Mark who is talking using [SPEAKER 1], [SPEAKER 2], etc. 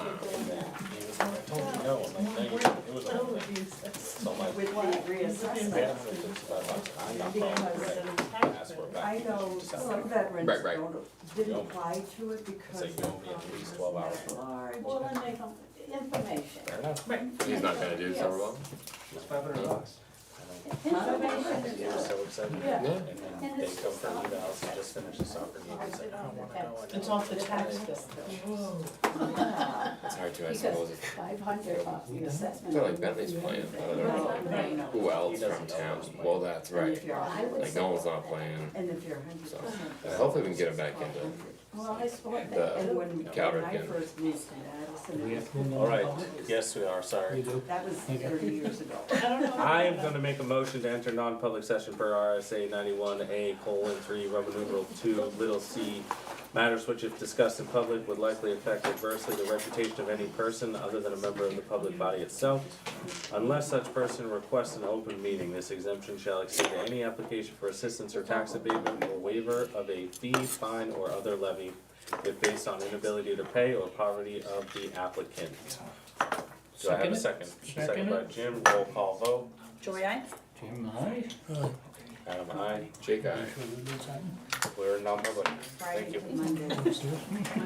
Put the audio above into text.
[SPEAKER 1] Exactly.
[SPEAKER 2] Yeah, if it's about lunch, I'm not calling,
[SPEAKER 1] Because
[SPEAKER 2] right, ask for a
[SPEAKER 1] I
[SPEAKER 2] back.
[SPEAKER 1] know some veterans
[SPEAKER 3] Right, right.
[SPEAKER 1] don't, didn't
[SPEAKER 2] Don't.
[SPEAKER 1] apply to it because
[SPEAKER 2] like
[SPEAKER 1] the
[SPEAKER 2] you only have at least 12
[SPEAKER 1] property was
[SPEAKER 4] Well,
[SPEAKER 1] large.
[SPEAKER 4] then they come, information.
[SPEAKER 2] Fair enough.
[SPEAKER 3] He's not gonna do
[SPEAKER 4] Yes.
[SPEAKER 3] summer well.
[SPEAKER 2] It's five hundred bucks.
[SPEAKER 4] Information is
[SPEAKER 2] They were so excited.
[SPEAKER 4] Yeah.
[SPEAKER 2] And then they come for evals and just finish the soccer game, it's like, oh. I don't wanna go.
[SPEAKER 1] It's off the tax bill.
[SPEAKER 3] It's hard to, I suppose.
[SPEAKER 4] Because five hundred off the assessment.
[SPEAKER 3] They're like Bentley's playing, but I don't know
[SPEAKER 4] Right.
[SPEAKER 3] who else from town. Well, that's right.
[SPEAKER 1] If you're a
[SPEAKER 4] I
[SPEAKER 1] hundred-
[SPEAKER 4] would
[SPEAKER 3] Like
[SPEAKER 4] say,
[SPEAKER 3] no one's not playing.
[SPEAKER 1] And if you're a hundred
[SPEAKER 3] So,
[SPEAKER 1] percent.
[SPEAKER 3] hopefully we can get 'em back into it.
[SPEAKER 4] well, I support
[SPEAKER 3] The-
[SPEAKER 4] that.
[SPEAKER 1] And when, when
[SPEAKER 3] Calvert
[SPEAKER 1] I
[SPEAKER 3] can.
[SPEAKER 1] first moved to Addison, it was-
[SPEAKER 2] All right, yes, we are, sorry.
[SPEAKER 1] that was thirty years ago.
[SPEAKER 5] I am gonna make a motion to enter non-public session per RSA ninety-one A colon three, Roman numeral two, little c. Matters which if discussed in public would likely affect adversely the reputation of any person other than a member of the public body itself. Unless such person requests an open meeting, this exemption shall extend to any application for assistance or tax abatement or waiver of a fee, fine, or other levy if based on inability to pay or poverty of the applicant. Do I have a second? Second by Jim, roll call vote.
[SPEAKER 4] Joy, I?
[SPEAKER 6] Jim, aye?
[SPEAKER 5] Adam, I,
[SPEAKER 3] Jake, I.
[SPEAKER 6] Should we do something?
[SPEAKER 5] we're non-public. Thank you.
[SPEAKER 1] Monday.